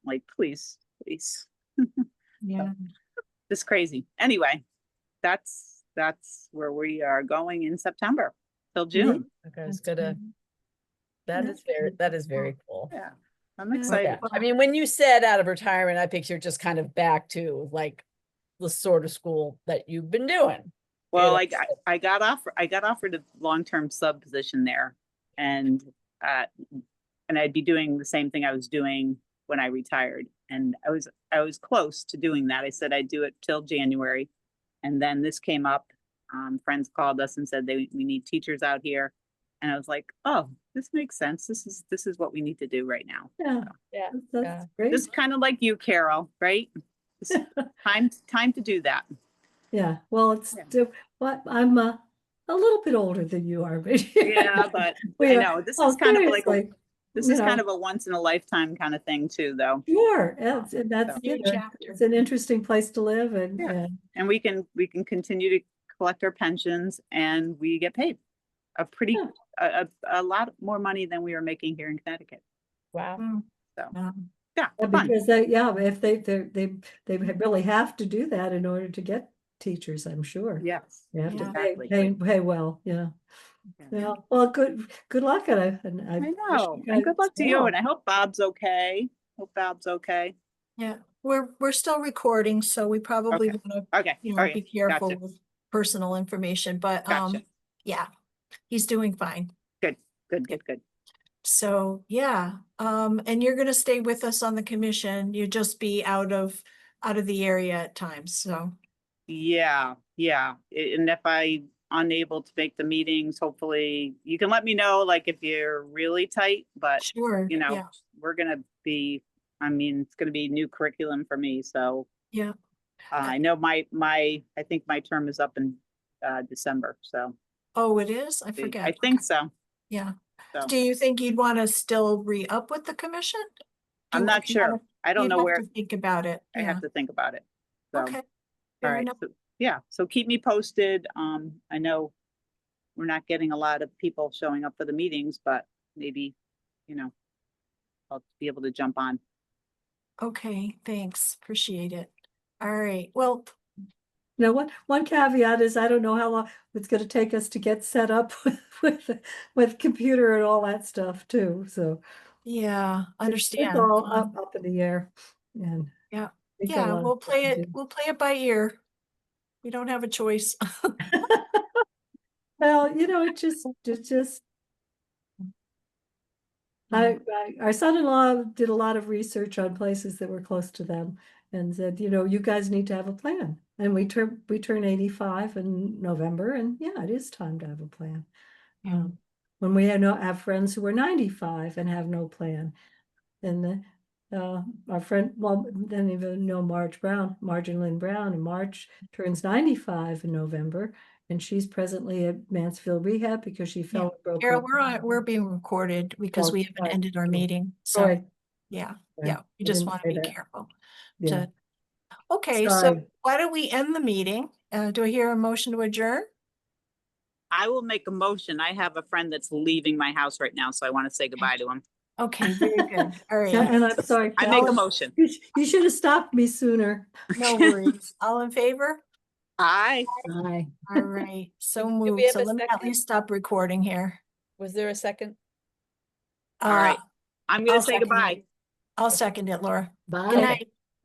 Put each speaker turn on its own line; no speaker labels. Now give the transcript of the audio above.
like, please, please,
Yeah,
this is crazy. Anyway, that's, that's where we are going in September till June.
Okay, it's
that's
gonna,
good.
that is
That's
very,
good.
that is very cool.
Yeah, I'm
Yeah.
Yeah,
excited.
I mean, when you said out of retirement, I pictured just kind of back to like the sort of school that you've been doing.
Well, I,
like
got-
said.
I got offer, I got offered a long-term sub position there and, uh, and I'd be doing the same thing I was doing when I retired. And I was, I was close to doing that. I said I'd do it till January. And then this came up, um, friends called us and said they, we need teachers out here. And I was like, oh, this makes sense. This is, this is what we need to do right now.
Yeah.
Yeah,
That's-
yeah.
That's great.
Just kind of like you, Carol, right? It's Time, time to do that.
Yeah, well, it's,
Yeah.
di- what, I'm uh, a little bit older than you are, but.
Yeah, but I
We are-
know, this
Oh,
is kind of like, a-
seriously,
this
you
is kind
know.
of a once in a lifetime kind of thing too, though.
Sure, it's- and that's,
So-
you
New
know,
chapter.
it's an interesting place to live and,
Yeah.
and
And we can, we can continue to collect our pensions and we get paid a pretty,
Yeah.
a, a, a lot more money than we were making here in Connecticut.
Wow.
um,
Yeah,
yeah,
fun.
because they, yeah, if they, they, they, they really have to do that in order to get teachers, I'm sure.
Yes.
You have to
Yeah.
pay,
Exactly.
pay, pay well, yeah.
Yeah.
Yeah, well, good, good luck and I, and I.
I
wish
know.
you
And
guys
good luck to you.
well.
And I hope Bob's okay. Hope Bob's okay.
Yeah, we're, we're still recording, so we probably
Okay.
wanna,
Okay.
you
All
know, be
right.
careful
Gotcha.
with personal information, but,
Gotcha.
um, yeah. He's doing fine.
Good, good, good.
So, yeah, um, and you're gonna stay with us on the commission. You'll just be out of, out of the area at times, so.
Yeah, yeah. A- And if I unable to make the meetings, hopefully you can let me know, like if you're really tight, but
Sure,
you know,
yeah,
we're gonna be, I mean, it's gonna be new curriculum for me, so.
Yeah.
Uh, I know my, my, I think my term is up in, uh, December, so.
oh, it is? I
the-
forget.
I think
Okay,
so.
Yeah.
so.
Do you think you'd wanna still re-up with the commission?
I'm
Do-
not
you'd have-
sure. I don't
you'd
know
have
where,
to Think about it,
I
yeah,
have to think about it. So,
okay.
all
fair
right,
enough.
so, yeah, so keep me posted. Um, I know we're not getting a lot of people showing up for the meetings, but maybe, you know, I'll be able to jump on.
Okay, thanks, appreciate it. All right, well,
Now, one, one caveat is I don't know how long it's gonna take us to get set up with, with computer and all that stuff too, so.
Yeah,
it's-
understand.
It's all
Um,
up, up in the air and.
Yeah.
we've got a
Yeah,
lot of
we'll
stuff
play
to
it,
do.
we'll play it by ear. We don't have a choice.
Well, you know, it just, it just, I, I- our son-in-law did a lot of research on places that were close to them and said, you know, you guys need to have a plan. And we turn, we turn eighty-five in November and yeah, it is time to have a plan.
Yeah.
Um, When we have no, have friends who are ninety-five and have no plan. And the, uh, our friend, well, then even know Marge Brown, Marge and Lynn Brown, and Marge turns ninety-five in November. And she's presently at Mansfield Rehab because she fell. and broke
Carol,
her-
we're on, we're being recorded because
Well,
we haven't
right,
ended our
yeah.
meeting,
Sorry,
so, yeah,
Right,
yeah,
I
we just
didn't
want
say
to be
that.
careful.
yeah.
to- Okay, so
Sorry.
why don't we end the meeting? Uh, do I hear a motion to adjourn?
I will make a motion. I have a friend that's leaving my house right now, so I want to say goodbye to him.
Okay, very good, all
Yeah,
right,
And I'm sorry.
I make a
Alice,
motion.
you sh- You should have stopped me sooner.
no worries, all in favor?
Aye.
Aye.
All right, so
we
moved,
have
so
a
let me at
second?
least stop recording here.
Was there a second?
All right.
Uh,
I'm gonna
I'll
say
second it.
goodbye.
I'll second it, Laura.
Bye.
Good night.